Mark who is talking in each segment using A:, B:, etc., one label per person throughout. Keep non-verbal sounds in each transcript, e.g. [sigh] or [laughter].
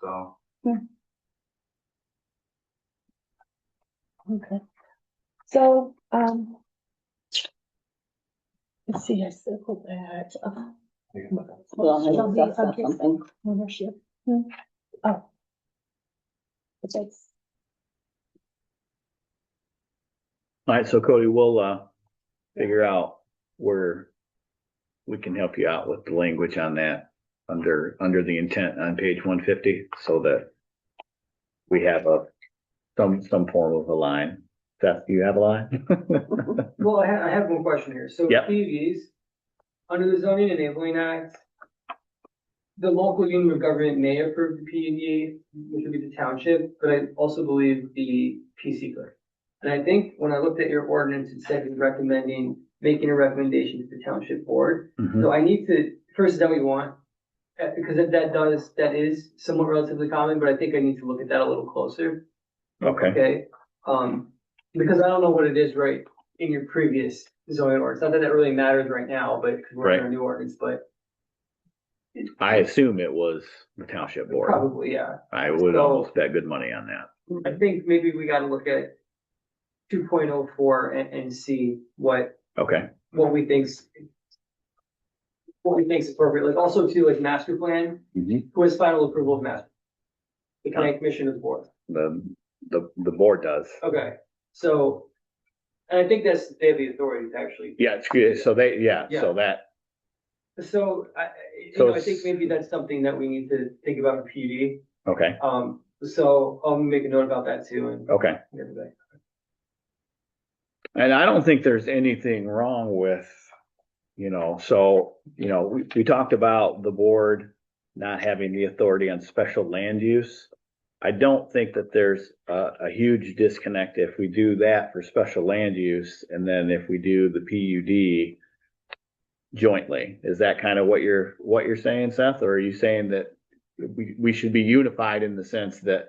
A: so.
B: Okay, so, um. Let's see, I circled that, uh,
C: Well, I
B: Shall we
C: discussed that
B: update-
C: something.
B: ownership, Hmm. oh. But that's,
D: All right, so Cody, we'll, uh, figure out where we can help you out with the language on that, under, under the intent on page one fifty, so that we have a, some, some form of a line. Seth, do you have a line?
E: Well, I have, I have one question here. So
D: Yep.
E: TVs, under the zoning enabling act, the local union of government may approve the PUD, which would be the township, but I also believe the PC could. And I think when I looked at your ordinance, it said you're recommending, making a recommendation to the township board.
D: Mhm.
E: So I need to, first, is that what you want? Uh, because if that does, that is somewhat relatively common, but I think I need to look at that a little closer.
D: Okay,
E: Okay, um, because I don't know what it is right in your previous zoning ordinance, not that that really matters right now, but, because we're in a new ordinance, but
D: I assume it was the township board.
E: probably, yeah.
D: I would
E: So-
D: almost bet good money on that.
E: I think maybe we gotta look at two point oh four and, and see what,
D: Okay,
E: what we think's what we think's appropriate, like also to like master plan,
D: Mhm.
E: who has final approval of master? The county commission of the board.
D: the, the, the board does.
E: Okay, so, and I think that's, they have the authority to actually
D: Yeah, it's good, so they, yeah, so that,
E: So I, I- you
D: So
E: know, I
D: it's-
E: think maybe that's something that we need to think about for PUD.
D: okay,
E: Um, so I'll make a note about that too and
D: okay.
E: everything.
D: And I don't think there's anything wrong with, you know, so, you know, we, we talked about the board not having the authority on special land use. I don't think that there's a, a huge disconnect if we do that for special land use and then if we do the PUD jointly. Is that kind of what you're, what you're saying, Seth? Or are you saying that we, we should be unified in the sense that,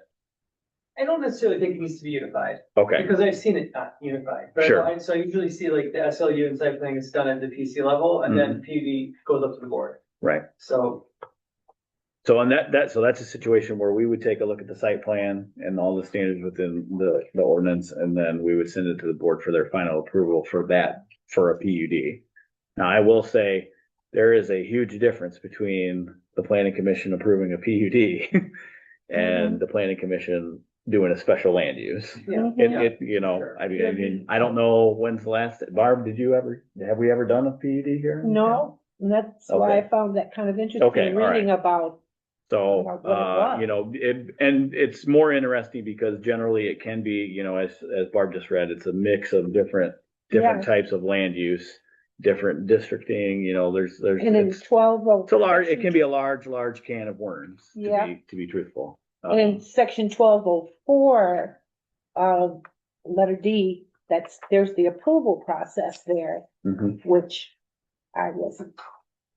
E: I don't necessarily think it needs to be unified
D: okay,
E: because I've seen it not unified. right?
D: Sure.
E: I- So I usually see like the SLU and site planning is done at the PC level and then PUD goes up to the board.
D: Mm-hmm. right?
E: So,
D: So on that, that, so that's a situation where we would take a look at the site plan and all the standards within the, the ordinance, and then we would send it to the board for their final approval for that, for a PUD. Now, I will say, there is a huge difference between the planning commission approving a [laughs] PUD and the planning commission doing a special land use.
E: yeah.
D: It, it, you know, I mean, I mean, I don't know when's the last, Barb, did you ever, have we ever done a PUD here?
B: no, and that's why I
D: Okay.
B: found that kind of
D: Okay,
B: interesting,
D: all right.
B: reading about,
D: So,
B: About what
D: uh,
B: it was.
D: you know, it, and it's more interesting because generally it can be, you know, as, as Barb just read, it's a mix of different, different types of land use, different districting, you know, there's, there's,
B: and in
D: it's,
B: twelve oh.
D: it's a large, it can be a large, large can of worms, to
B: Yeah.
D: be, to be truthful.
B: And
D: Um,
B: in section twelve oh four, uh, letter D, that's, there's the approval process there,
D: mhm.
B: which I wasn't,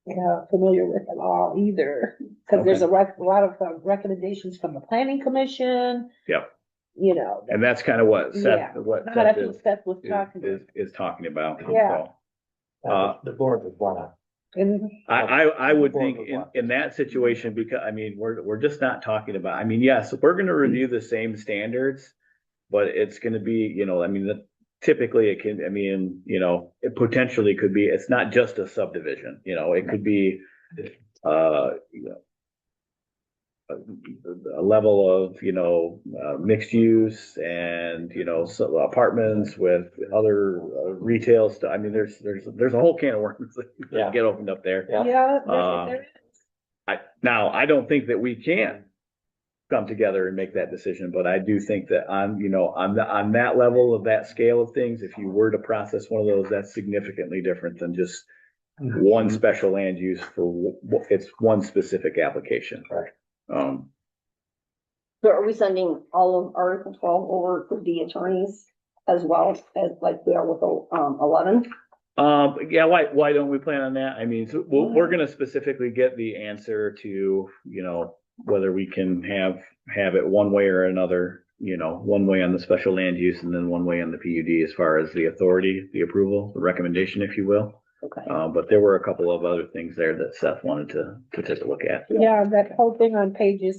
B: you know, familiar with at all either. Cause there's a rec- a lot of uh, recommendations from the planning commission.
D: Yep.
B: You know,
D: And that's kind of what
B: Yeah.
D: Seth, what
B: But I
D: Seth
B: think
D: is,
B: Seth was talking,
D: is, is talking about.
B: Yeah.
D: Uh,
A: The board would wanna.
B: and
D: I,
A: Oh,
D: I, I would
A: Or
D: think
A: with
D: in,
A: what?
D: in that situation, because, I mean, we're, we're just not talking about, I mean, yes, we're
A: Hmm.
D: gonna review the same standards. But it's gonna be, you know, I mean, the- typically it can, I mean, you know, it potentially could be, it's not just a subdivision, you know, it could be. Uh, you know. A, a level of, you know, uh, mixed use and, you know, so apartments with other uh, retail stuff. I mean, there's, there's, there's a whole can of worms [laughs]
A: Yeah.
D: that get opened up there.
A: Yeah.
B: Yeah. there-
D: Uh,
B: there is.
D: I, now, I don't think that we can come together and make that decision, but I do think that on, you know, on the, on that level of that scale of things, if you were to process one of those, that's significantly different than just one special land use for, w- it's one specific application.
A: Right.
D: Um,
C: So are we sending all of Article twelve over to the attorneys as well as like we are with um eleven?
D: um, yeah, why, why don't we plan on that? I mean, so we're, we're gonna specifically get the answer to, you know, whether we can have, have it one way or another, you know, one way on the special land use and then one way on the PUD as far as the authority, the approval, the recommendation, if you will.
C: Okay.
D: Uh, but there were a couple of other things there that Seth wanted to, to take a look at.
B: Yeah, that whole thing on pages